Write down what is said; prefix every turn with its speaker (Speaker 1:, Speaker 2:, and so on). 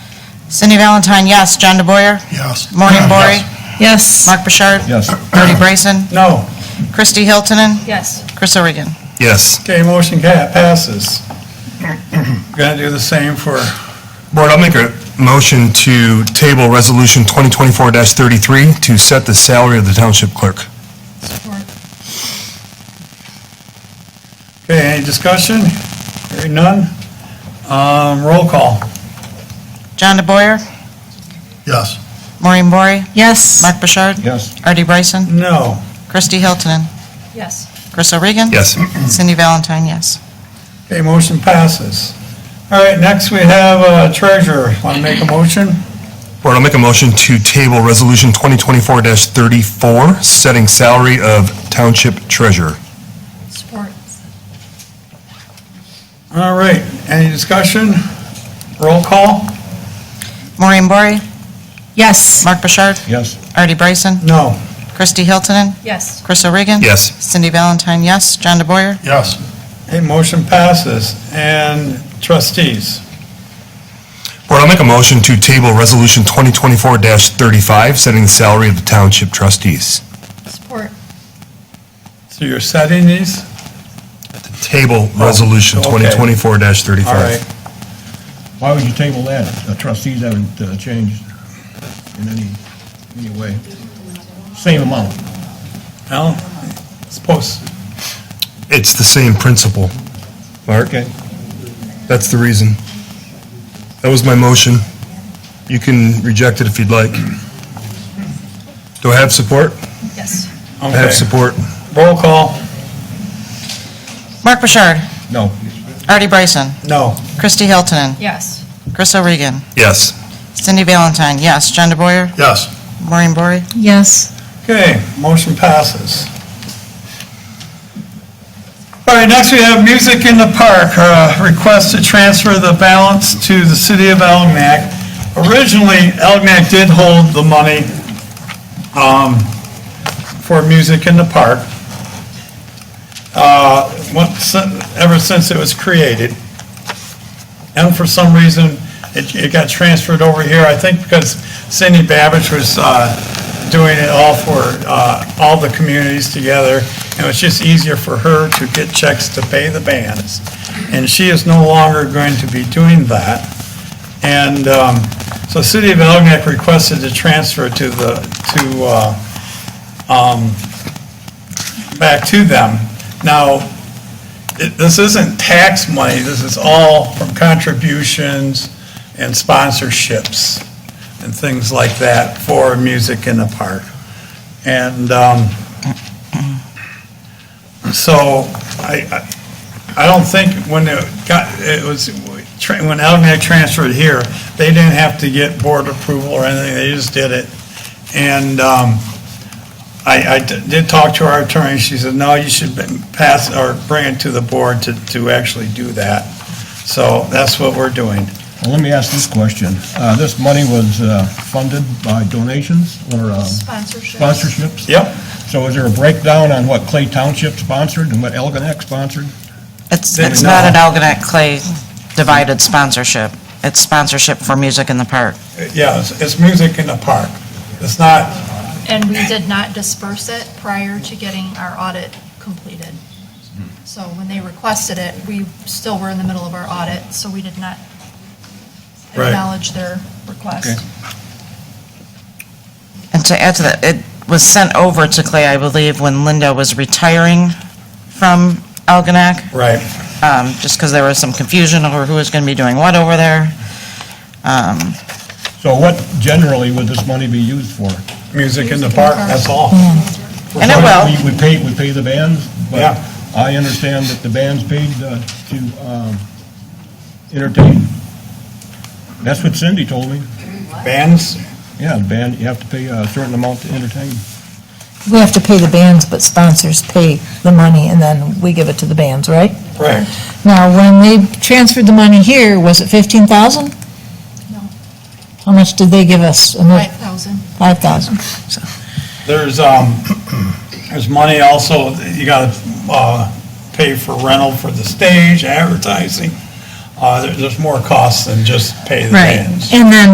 Speaker 1: Cindy Valentine, yes. John DeBoyer?
Speaker 2: Yes.
Speaker 1: Maureen Bory?
Speaker 3: Yes.
Speaker 1: Mark Bouchard?
Speaker 4: Yes.
Speaker 1: Artie Bryson?
Speaker 2: No.
Speaker 1: Kristi Hiltonen?
Speaker 3: Yes.
Speaker 1: Chris Oregan?
Speaker 4: Yes.
Speaker 2: Okay, motion ca- passes. Going to do the same for,
Speaker 4: Board, I'll make a motion to table Resolution 2024-33 to set the salary of the township clerk.
Speaker 2: okay, any discussion? Hearing none? Um, Roll call.
Speaker 1: John DeBoyer?
Speaker 2: Yes.
Speaker 1: Maureen Bory?
Speaker 3: Yes.
Speaker 1: Mark Bouchard?
Speaker 4: Yes.
Speaker 1: Artie Bryson?
Speaker 2: No.
Speaker 1: Kristi Hiltonen?
Speaker 3: Yes.
Speaker 1: Chris Oregan?
Speaker 4: Yes.
Speaker 1: Cindy Valentine, yes.
Speaker 2: Okay, motion passes. All right, next we have uh, treasurer. Want to make a motion?
Speaker 4: Board, I'll make a motion to table Resolution 2024-34, setting salary of township treasurer.
Speaker 3: Sports.
Speaker 2: All right, any discussion? Roll call?
Speaker 1: Maureen Bory?
Speaker 3: Yes.
Speaker 1: Mark Bouchard?
Speaker 4: Yes.
Speaker 1: Artie Bryson?
Speaker 2: No.
Speaker 1: Kristi Hiltonen?
Speaker 3: Yes.
Speaker 1: Chris Oregan?
Speaker 4: Yes.
Speaker 1: Cindy Valentine, yes. John DeBoyer?
Speaker 2: Yes. Okay, motion passes. And trustees?
Speaker 4: Board, I'll make a motion to table Resolution 2024-35, setting the salary of the township trustees.
Speaker 3: Sport.
Speaker 2: So you're setting these?
Speaker 4: Table Resolution
Speaker 2: Oh, okay.
Speaker 4: 2024-35.
Speaker 2: All right.
Speaker 5: Why would you table that? The trustees haven't uh, changed in any, any way. Same amount.
Speaker 2: Well, it's posted.
Speaker 4: It's the same principle. Mark? That's the reason. That was my motion. You can reject it if you'd like. Do I have support?
Speaker 3: Yes.
Speaker 4: I have
Speaker 2: Okay.
Speaker 4: support.
Speaker 2: Roll call.
Speaker 1: Mark Bouchard?
Speaker 5: No.
Speaker 1: Artie Bryson?
Speaker 2: No.
Speaker 1: Kristi Hiltonen?
Speaker 3: Yes.
Speaker 1: Chris Oregan?
Speaker 4: Yes.
Speaker 1: Cindy Valentine, yes. John DeBoyer?
Speaker 2: Yes.
Speaker 1: Maureen Bory?
Speaker 3: Yes.
Speaker 2: Okay, motion passes. All right, next we have Music in the Park, uh, request to transfer the balance to the city of Elginak. Originally, Elginak did hold the money um, for Music in the Park, uh, once- ever since it was created. And for some reason, it, it got transferred over here, I think because Cindy Babbage was, uh, doing it all for, uh, all the communities together. And it was just easier for her to get checks to pay the bands. And she is no longer going to be doing that. And, um, so City of Elginak requested the transfer to the, to, uh, um, back to them. Now, it- this isn't tax money, this is all from contributions and sponsorships and things like that for Music in the Park. And um, so I, I- I don't think when it got, it was, tra- when Algenack transferred here, they didn't have to get board approval or anything, they just did it. And um, I, I d- did talk to our attorney, she said, no, you should be- pass, or bring it to the board to, to actually do that. So that's what we're doing.
Speaker 5: Well, let me ask this question. Uh, This money was uh, funded by donations or um,
Speaker 3: Sponsorship.
Speaker 5: sponsorships?
Speaker 2: Yep,
Speaker 5: So is there a breakdown on what Clay Township sponsored and what Elginak sponsored?
Speaker 1: It's,
Speaker 2: Then
Speaker 1: it's not
Speaker 2: no.
Speaker 1: an Algonac Clay divided sponsorship. It's sponsorship for music in the park.
Speaker 2: yeah, it's, it's music in the park. It's not,
Speaker 6: And we did not disperse it prior to getting our audit completed. So when they requested it, we still were in the middle of our audit, so we did not
Speaker 2: Right.
Speaker 6: acknowledge their request.
Speaker 1: And to add to that, it was sent over to Clay, I believe, when Linda was retiring from Algonac,
Speaker 2: right.
Speaker 1: um, just because there was some confusion over who was going to be doing what over there. Um,
Speaker 5: So what generally would this money be used for?
Speaker 2: Music in the park, Hmm. that's all.
Speaker 1: And it will.
Speaker 5: We- We pay, we pay the bands,
Speaker 2: Yeah.
Speaker 5: but I understand that the bands paid uh, to um, entertain. That's what Cindy told me.
Speaker 2: Bands,
Speaker 5: Yeah, the band, you have to pay a certain amount to entertain.
Speaker 7: We have to pay the bands, but sponsors pay the money, and then we give it to the bands, right?
Speaker 2: right.
Speaker 7: Now, when they transferred the money here, was it fifteen thousand?
Speaker 6: No.
Speaker 7: How much did they give us?
Speaker 6: Five thousand.
Speaker 7: Five thousand.
Speaker 2: There's, um, there's money also, you gotta, uh, pay for rental for the stage, advertising. Uh, there- there's more costs than just pay the
Speaker 7: Right,
Speaker 2: bands.
Speaker 7: and then